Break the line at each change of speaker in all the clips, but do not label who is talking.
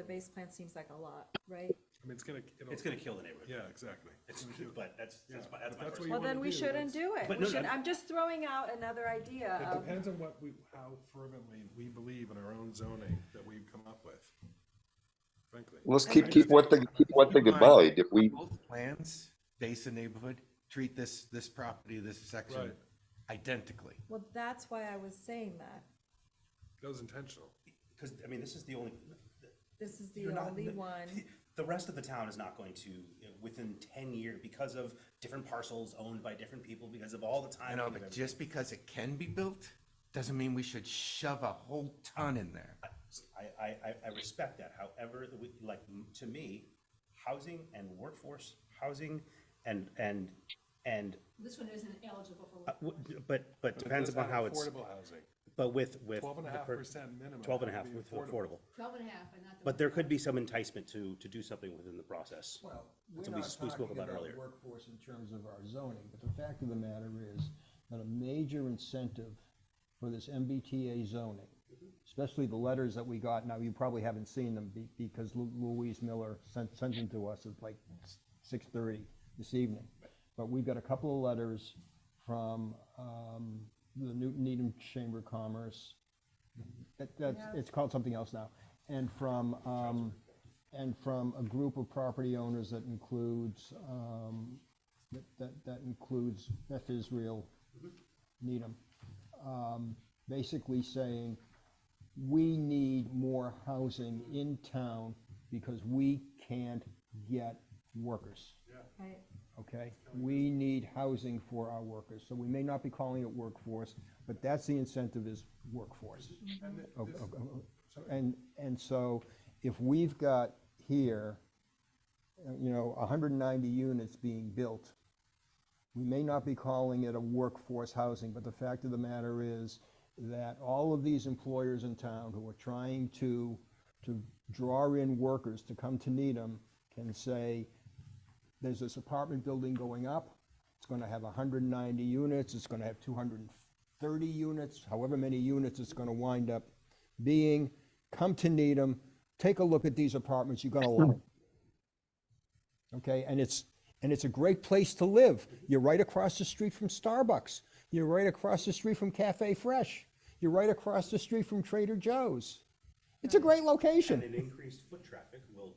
The base plan seems like a lot, right?
I mean, it's gonna, it'll,
It's gonna kill the neighborhood.
yeah, exactly.
It's, but that's, that's my, that's
but that's
my
what
personal.
you
Well, then
wanna
we
do,
shouldn't do it.
But
We
no,
should,
no.
I'm just throwing out another idea
It
of,
depends on what we, how fervently we believe in our own zoning that we've come up with, frankly.
Let's keep, keep one thing, keep one thing in mind. If we,
Both plans base the neighborhood, treat this, this property, this section
Right.
identically.
well, that's why I was saying that.
That was intentional.
Because, I mean, this is the only,
This is the
you're not-
only one.
The rest of the town is not going to, you know, within ten year, because of different parcels owned by different people, because of all the
I
time.
know, but just because it can be built, doesn't mean we should shove a whole ton in there.
I, I, I, I respect that, however, the we- like, m- to me, housing and workforce, housing and, and, and,
This one isn't eligible for.
uh, w- but, but depends
That's not
upon how it's,
Affordable housing,
but with, with.
twelve and a
the
half
per-
percent minimum.
Twelve and a
had
half
to be
with affordable.
Twelve and a half, and not the.
But there could be some enticement to, to do something within the process.
Well,
That's
we're
what we
not
s- we spoke
talking
about
about
earlier.
workforce in terms of our zoning, but the fact of the matter is that a major incentive for this MBTA zoning, especially the letters that we got, now you probably haven't seen them be- because Lu- Louise Miller sent, sent them to us at like six thirty this evening. But we've got a couple of letters from, um, the Newton Needham Chamber of Commerce. That, that's, it's called something else now, and from, um, and from a group of property owners that includes, um, that, that, that includes Beth Israel, Needham, um, basically saying, we need more housing in town because we can't get workers
Right.
okay? We need housing for our workers, so we may not be calling it workforce, but that's the incentive is workforce. O- o- o- And, and so if we've got here, uh, you know, hundred and ninety units being built, we may not be calling it a workforce housing, but the fact of the matter is that all of these employers in town who are trying to, to draw in workers to come to Needham can say, there's this apartment building going up. It's gonna have hundred and ninety units, it's gonna have two hundred and thirty units, however many units it's gonna wind up being. Come to Needham, take a look at these apartments, you're gonna love 'em. Okay, and it's, and it's a great place to live. You're right across the street from Starbucks. You're right across the street from Cafe Fresh. You're right across the street from Trader Joe's. It's a great
And
location.
an increased foot traffic will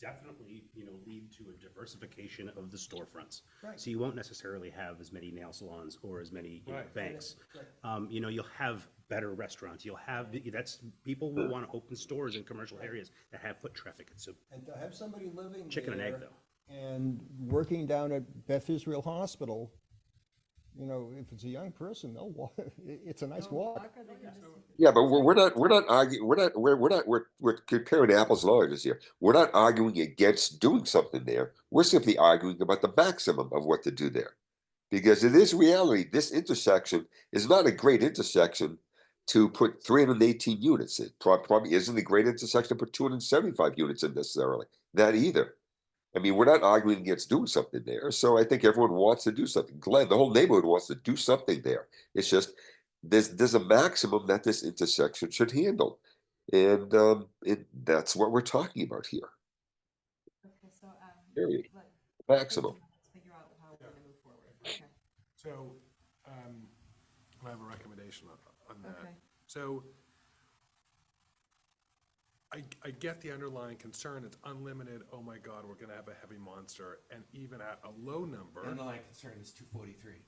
definitely, you know, lead to a diversification of the storefronts.
Right.
So you won't necessarily have as many nail salons or as many you know,
Right.
banks. Um, you know, you'll have better restaurants, you'll have, that's, people will want to open stores in commercial areas that have foot traffic, it's a
And to have somebody living
chicken and egg
there
though.
And working down at Beth Israel Hospital, you know, if it's a young person, they'll walk, it's a nice walk.
Fuck, or they can just-
yeah, but we're, we're not, we're not arguing, we're not, we're, we're not, we're, we're comparing apples and oranges here. We're not arguing against doing something there. We're simply arguing about the maximum of what to do there. Because it is reality, this intersection is not a great intersection to put three hundred and eighteen units in. Prob- Probably isn't a great intersection to put two hundred and seventy-five units in necessarily, that either. I mean, we're not arguing against doing something there, so I think everyone wants to do something. Glenn, the whole neighborhood wants to do something there. It's just, there's, there's a maximum that this intersection should handle. And, um, it, that's what we're talking about here,
Okay, so, um,
Period.
let-
maximum.
let's Figure out how we're gonna move forward. Okay.
So, um, I have a recommendation on, on that.
Okay.
So I, I get the underlying concern, it's unlimited, oh my god, we're gonna have a heavy monster, and even at a low
uh,
The
number,
underlying concern is two forty-three.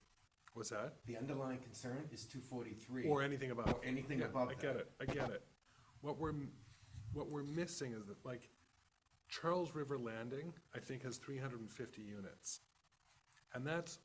what's that?
The underlying concern is two forty-three.
Or anything above.
Or anything
Yeah,
above
I get
that.
it, I get it. What we're, m- what we're missing is that, like, Charles River Landing, I think, has three hundred and fifty units. And that's,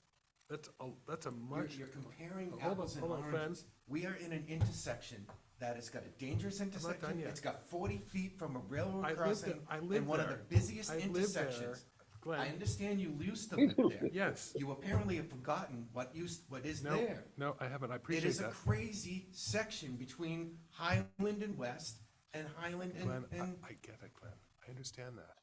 that's a, that's a
You're,
much.
you're comparing
Hold on,
apples and
hold on, Fran.
oranges. We are in an intersection that has got a dangerous
done
intersection.
yet.
It's got forty feet from a
I
railroad
lived
crossing
there- I lived
and one of the
there.
busiest
I lived there,
intersections. I
Glenn.
understand you used to live there.
Yes.
You apparently have forgotten what used, what is
No,
there.
no, I haven't, I
It
appreciate
is a
that.
crazy section between Highland and West and Highland
Glenn,
and,
I,
and,
I get it, Glenn. I understand that.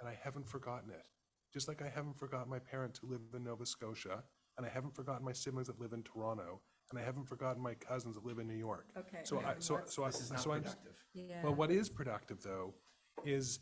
And I haven't forgotten it. Just like I haven't forgotten my parents who live in Nova Scotia, and I haven't forgotten my siblings that live in Toronto, and I haven't forgotten my cousins that live in New York.
Okay,
So I, so, so I,
this is not
so I,
productive.
Yeah.
well, what is productive though is